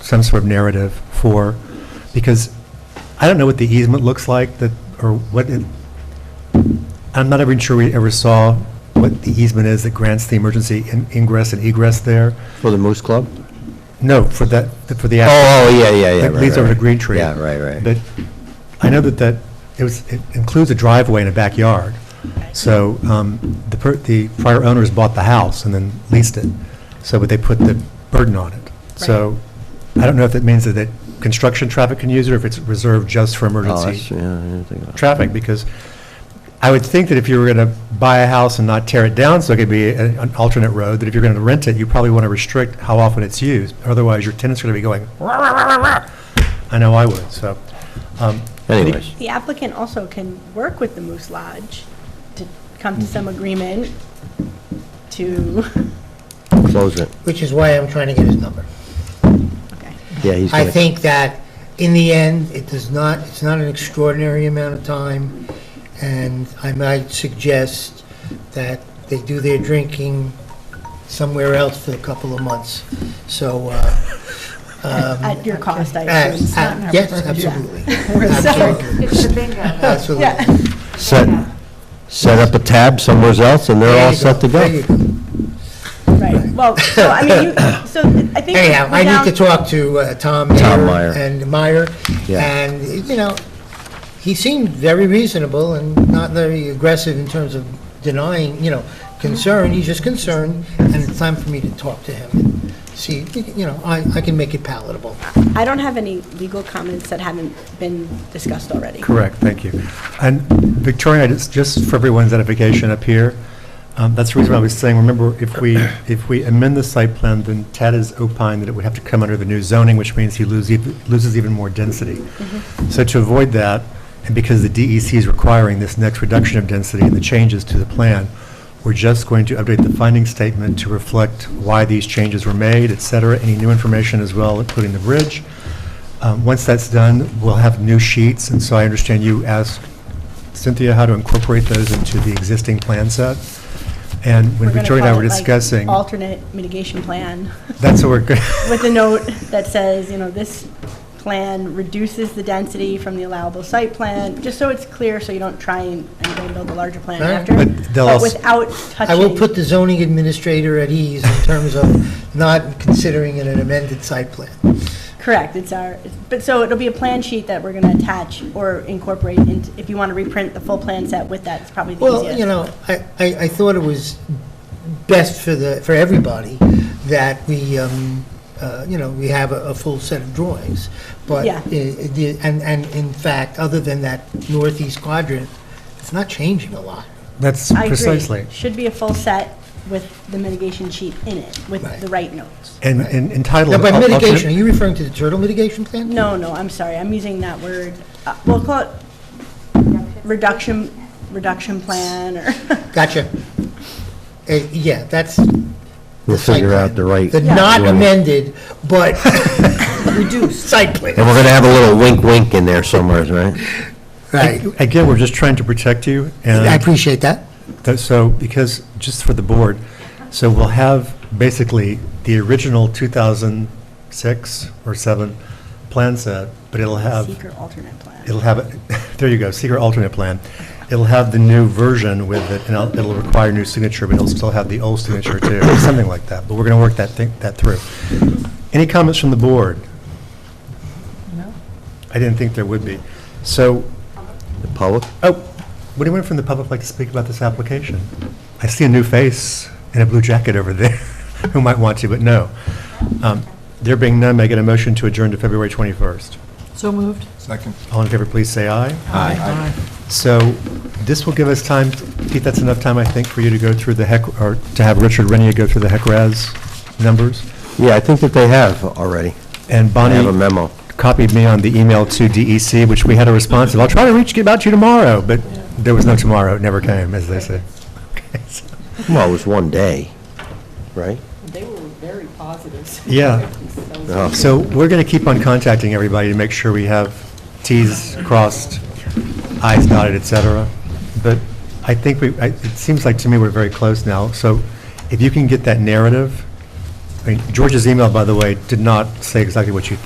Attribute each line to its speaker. Speaker 1: some sort of narrative for, because I don't know what the easement looks like, that, or what, it- I'm not even sure we ever saw what the easement is that grants the emergency in- ingress and egress there.
Speaker 2: For the Moose Club?
Speaker 1: No, for that, for the.
Speaker 2: Oh, oh, yeah, yeah, yeah.
Speaker 1: That
Speaker 2: right,
Speaker 1: leads over
Speaker 2: right.
Speaker 1: to Green Tree.
Speaker 2: Yeah, right, right.
Speaker 1: But I know that that, it was, it includes a driveway and a backyard. So um, the, per- the prior owners bought the house and then leased it. So would they put the burden on it? So I don't know if that means that, that construction traffic can use it or if it's reserved just for
Speaker 2: Oh,
Speaker 1: emergency
Speaker 2: that's- yeah, I didn't think of that.
Speaker 1: traffic, because I would think that if you were going to buy a house and not tear it down, so it could be a- an alternate road, that if you're going to rent it, you probably want to restrict how often it's used. Otherwise, your tenants are going to be going, "Rah, rah, rah, rah, rah." I know I would, so. um,
Speaker 2: Anyways,
Speaker 3: The applicant also can work with the Moose Lodge to come to
Speaker 4: Mm-hmm.
Speaker 3: some agreement to,
Speaker 2: close it.
Speaker 4: which is why I'm trying to get his number.
Speaker 3: okay.
Speaker 2: Yeah, he's
Speaker 4: I
Speaker 2: gonna.
Speaker 4: think that in the end, it does not, it's not an extraordinary amount of time, and I might suggest that they do their drinking somewhere else for a couple of months. So, uh,
Speaker 3: at your cost, I
Speaker 4: uh,
Speaker 3: assume. It's not in
Speaker 4: uh,
Speaker 3: our
Speaker 4: yes,
Speaker 3: purview.
Speaker 4: absolutely,
Speaker 3: We're sorry.
Speaker 4: absolutely,
Speaker 5: It's the bingo.
Speaker 4: absolutely.
Speaker 3: Yeah.
Speaker 2: Set, set up a tab somewhere else and they're
Speaker 4: There
Speaker 2: all
Speaker 4: you
Speaker 2: set to
Speaker 4: There you
Speaker 2: go.
Speaker 3: Right, well, so, I mean, you, so I think.
Speaker 4: Anyhow, I
Speaker 3: without-
Speaker 4: need to talk to uh, Tom
Speaker 2: Tom
Speaker 4: Mayer
Speaker 2: Meyer.
Speaker 4: and Meyer,
Speaker 2: Yeah.
Speaker 4: and, you know, he seemed very reasonable and not very aggressive in terms of denying, you know, concern, he's just concerned, and it's time for me to talk to him. See, you know, I, I can make it palatable.
Speaker 3: I don't have any legal comments that haven't been discussed already.
Speaker 1: Correct, thank you. And Victoria, just, just for everyone's edification up here, um, that's the reason why I was saying, remember, if we, if we amend the site plan, then Ted has opined that it would have to come under the new zoning, which means he loses, loses even more density. So to avoid that, and because the DEC is requiring this next reduction of density and the changes to the plan, we're just going to update the finding statement to reflect why these changes were made, et cetera, any new information as well, including the bridge. Um, Once that's done, we'll have new sheets, and so I understand you asked Cynthia how to incorporate those into the existing plan set. And when
Speaker 3: We're gonna
Speaker 1: Victoria and I
Speaker 3: call
Speaker 1: were
Speaker 3: it, like,
Speaker 1: discussing,
Speaker 3: Alternate mitigation plan
Speaker 1: that's what we're, go-
Speaker 3: with a note that says, you know, this plan reduces the density from the allowable site plan, just so it's clear, so you don't try and and go build a larger plan
Speaker 4: All right.
Speaker 3: after.
Speaker 1: But they'll
Speaker 3: But
Speaker 1: also-
Speaker 3: without
Speaker 4: I
Speaker 3: touching.
Speaker 4: will put the zoning administrator at ease in terms of not considering it an amended site plan.
Speaker 3: Correct, it's our, but so it'll be a plan sheet that we're gonna attach or incorporate, and if you wanna reprint the full plan set with that, it's probably the easiest.
Speaker 4: Well, you know, I, I, I thought it was best for the, for everybody that we, um, uh, you know, we have a, a full set of drawings. But,
Speaker 3: Yeah.
Speaker 4: i- i- the- and, and in fact, other than that northeast quadrant, it's not changing a lot.
Speaker 1: that's
Speaker 3: I agree.
Speaker 1: precisely.
Speaker 3: Should be a full set with the mitigation sheet in it, with
Speaker 4: Right.
Speaker 3: the right notes.
Speaker 1: And and entitled.
Speaker 4: Now, by
Speaker 1: al- alternate-
Speaker 4: mitigation, are you referring to the turtle mitigation plan?
Speaker 3: No, no, I'm sorry, I'm using that word, uh, we'll call it reduction, reduction plan, or,
Speaker 4: Gotcha. Uh, Yeah, that's.
Speaker 2: We'll
Speaker 4: the site
Speaker 2: figure out
Speaker 4: plan.
Speaker 2: the right.
Speaker 4: The
Speaker 2: And
Speaker 4: not
Speaker 2: Yeah.
Speaker 4: amended, but reduced site plan.
Speaker 2: we're gonna have a little wink wink in there somewhere, right?
Speaker 4: Right.
Speaker 1: Again, we're just trying to protect you, and.
Speaker 4: I appreciate that.
Speaker 1: Th- So, because, just for the board, so we'll have basically the original 2006 or 7 plan set, but it'll have,
Speaker 3: seeker alternate plan.
Speaker 1: it'll have, there you go, secret alternate plan. It'll have the new version with it, and it'll- it'll require new signature, but it'll still have the old signature too, or something like that, but we're going to work that thing, that through. Any comments from the board? No. I didn't think there would be. So,
Speaker 2: The public?
Speaker 1: Oh, would anyone from the public like to speak about this application? I see a new face in a blue jacket over there who might want to, but no. Um, There being none, may I get a motion to adjourn to February 21st?
Speaker 5: So moved.
Speaker 6: Second.
Speaker 1: All in favor, please say aye.
Speaker 6: Aye.
Speaker 1: So this will give us time, Pete, that's enough time, I think, for you to go through the HEC, or to have Richard Renia go through the HECRAS numbers.
Speaker 2: Yeah, I think that they have already.
Speaker 1: And
Speaker 2: I
Speaker 1: Bonnie
Speaker 2: have a memo.
Speaker 1: copied me on the email to DEC, which we had a response of, I'll try to reach you about you tomorrow, but there was no tomorrow, it never came, as they say. Okay, so-
Speaker 2: Well, it was one day, right?
Speaker 7: They were very positive.
Speaker 1: Yeah.
Speaker 2: Oh,
Speaker 1: So we're going to keep on contacting everybody to make sure we have Ts crossed, Is dotted, et cetera. But I think we, I- it seems like to me we're very close now. So if you can get that narrative, I mean, George's email, by the way, did not say exactly what you